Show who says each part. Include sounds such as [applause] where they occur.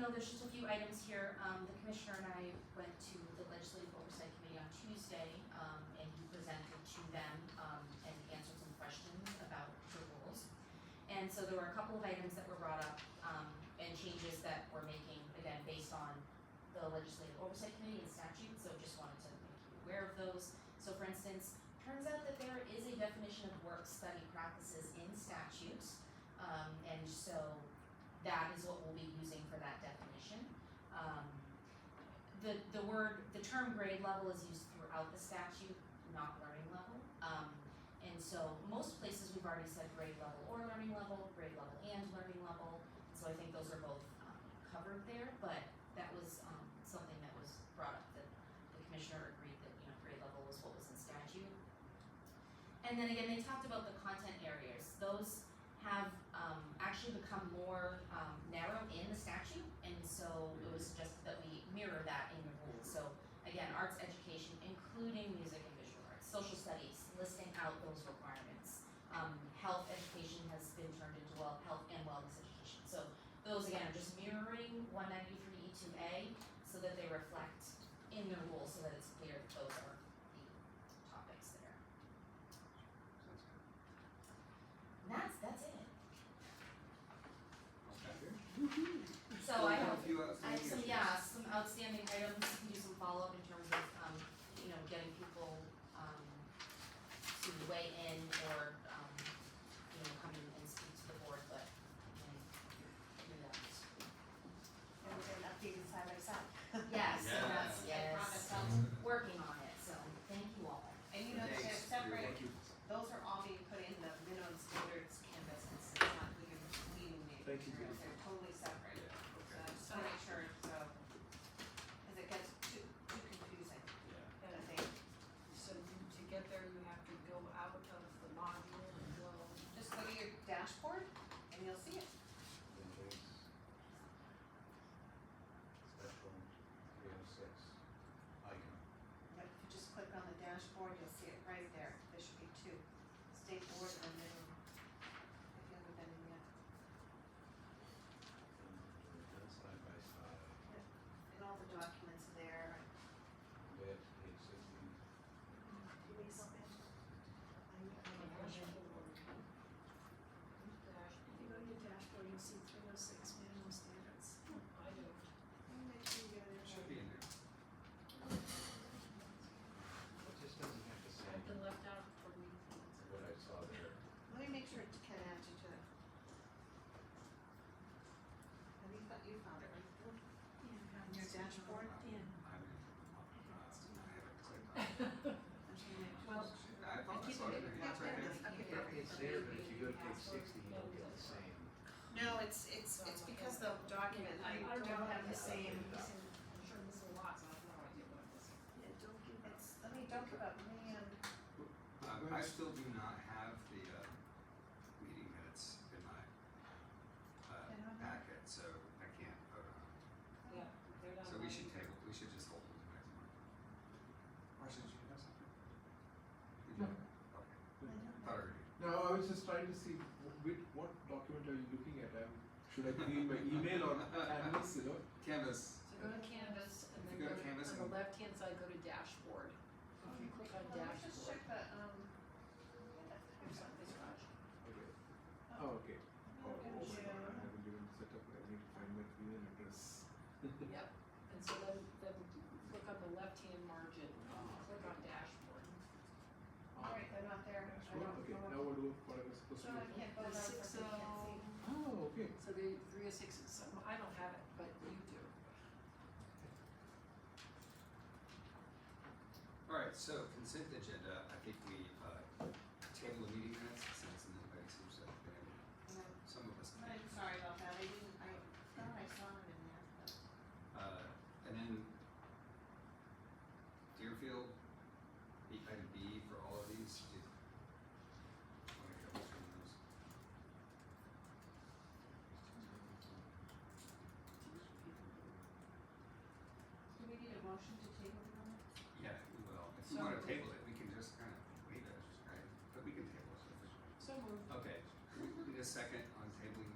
Speaker 1: know, there's just a few items here, um, the commissioner and I went to the legislative oversight committee on Tuesday, um, and he presented to them, um, and answered some questions about the rules. And so there were a couple of items that were brought up, um, and changes that we're making, again, based on the legislative oversight committee and statute, so just wanted to make you aware of those. So for instance, turns out that there is a definition of work study practices in statute, um, and so that is what we'll be using for that definition. Um, the, the word, the term grade level is used throughout the statute, not learning level. Um, and so most places we've already said grade level or learning level, grade level and learning level. So I think those are both, um, covered there, but that was, um, something that was brought up, that the commissioner agreed that, you know, grade level was what was in statute. And then again, they talked about the content areas, those have um actually become more um narrow in the statute, and so it was suggested that we mirror that in the rules, so again, arts education, including music and visual arts, social studies, listing out those requirements. Um health education has been turned into well, health and wellness education, so those again are just mirroring one ninety-three E two A so that they reflect in the rules, so that it's clear that those are the topics that are. And that's that's it. So I have, I have some, yeah, some outstanding items, we can do some follow-up in terms of, um, you know, getting people, um, to weigh in or, um, you know, come in and speak to the board, but, um, do that.
Speaker 2: And we're doing updated side by
Speaker 3: [laughs]
Speaker 2: side.
Speaker 1: Yes, so that's, yes,
Speaker 4: Yeah. Promise
Speaker 1: I'm working on it, so thank you all.
Speaker 2: And you know, they're separate, those are all being put in the minimum standards canvas, it's not, we can, we can make
Speaker 3: Thank you,
Speaker 2: sure
Speaker 3: Jennifer.
Speaker 2: they're totally separate. So I just wanna make sure, so, cause it gets too, too confusing, I think,
Speaker 5: So you- to get there, you have to go out of the module and go,
Speaker 2: just look at your dashboard and you'll see it.
Speaker 3: Special three oh six icon.
Speaker 2: Yep, if you just click on the dashboard, you'll see it right there, there should be two, state board and minimum, if you haven't been in yet.
Speaker 3: And then side by side,
Speaker 2: And all the documents are there,
Speaker 3: way up to page sixteen.
Speaker 6: If
Speaker 5: dash,
Speaker 6: you go to your dashboard, you'll see three oh six minimum standards.
Speaker 5: I don't.
Speaker 6: Make sure you get it.
Speaker 3: Should be in there. It just doesn't have to say
Speaker 5: I've been left out for me.
Speaker 3: what I saw there.
Speaker 2: Let me make sure it can add you to it. Have you found, you found it, right?
Speaker 6: Yeah.
Speaker 2: On your dashboard?
Speaker 6: Yeah.
Speaker 4: I haven't, uh, I haven't clicked on it.
Speaker 5: Well,
Speaker 4: I
Speaker 5: I
Speaker 4: thought I
Speaker 5: keep
Speaker 4: saw it,
Speaker 5: it-
Speaker 4: yeah, it's right there.
Speaker 2: Okay.
Speaker 3: It's there, but if you go to page sixteen, you'll get the same.
Speaker 2: No, it's, it's, it's because the document, I
Speaker 5: I
Speaker 2: don't have the same,
Speaker 5: I'm sure this is a lot, so I have no idea what it is.
Speaker 6: Yeah, don't give up.
Speaker 2: it's, let me, don't give up, man.
Speaker 4: Um, I still do not have the, uh, meeting minutes in my, uh,
Speaker 2: I don't have-
Speaker 4: packet, so I can't vote on it.
Speaker 5: Yeah, they're not.
Speaker 4: So we
Speaker 5: on
Speaker 4: should
Speaker 5: it.
Speaker 4: table, we should just hold it to next month. Marcia, did you have something? Did
Speaker 7: No.
Speaker 4: you? Okay, thought I already.
Speaker 7: No, I was just trying to see wh- which, what document are you looking at? Um, should I be in my email or Canvas, you know?
Speaker 4: Canvas,
Speaker 5: So go to Canvas and
Speaker 4: If
Speaker 5: then
Speaker 4: you
Speaker 5: go
Speaker 4: go to
Speaker 5: to,
Speaker 4: Canvas
Speaker 5: on the
Speaker 4: and-
Speaker 5: left-hand side, go to dashboard. If you click on
Speaker 2: Well, Let me just check
Speaker 5: dashboard.
Speaker 2: the, um, here's something, Raj.
Speaker 7: Okay. Oh, okay. Oh, oh my god, I haven't even set up, I need to find my email address.
Speaker 5: Yep, and so then, then click on the left-hand margin, click on dashboard.
Speaker 2: Alright, they're not there, I
Speaker 7: Dashboard,
Speaker 2: don't
Speaker 7: okay, now
Speaker 2: know.
Speaker 7: we'll do what I was supposed
Speaker 2: So
Speaker 7: to
Speaker 2: I
Speaker 7: do.
Speaker 2: can't vote on it,
Speaker 5: Six
Speaker 2: because Oh, I can't see.
Speaker 7: Oh, okay.
Speaker 5: So the three oh six is some, I don't have it, but you do.
Speaker 4: Alright, so consent agenda, I think we, uh, table the meeting minutes since nobody seems to have been able,
Speaker 2: No,
Speaker 4: some of us can.
Speaker 2: I'm sorry about that, I didn't, I thought I saw them in there, but.
Speaker 4: Uh, and then Deerfield, the item B for all of these, do. wanna go through those?
Speaker 2: Do we need a motion to table the minutes?
Speaker 4: Yeah, we will. If you
Speaker 5: So-
Speaker 4: wanna table it, we can just kind of wait it, right? But we can table it. if it's-
Speaker 5: So moved.
Speaker 4: Okay, need a second on tabling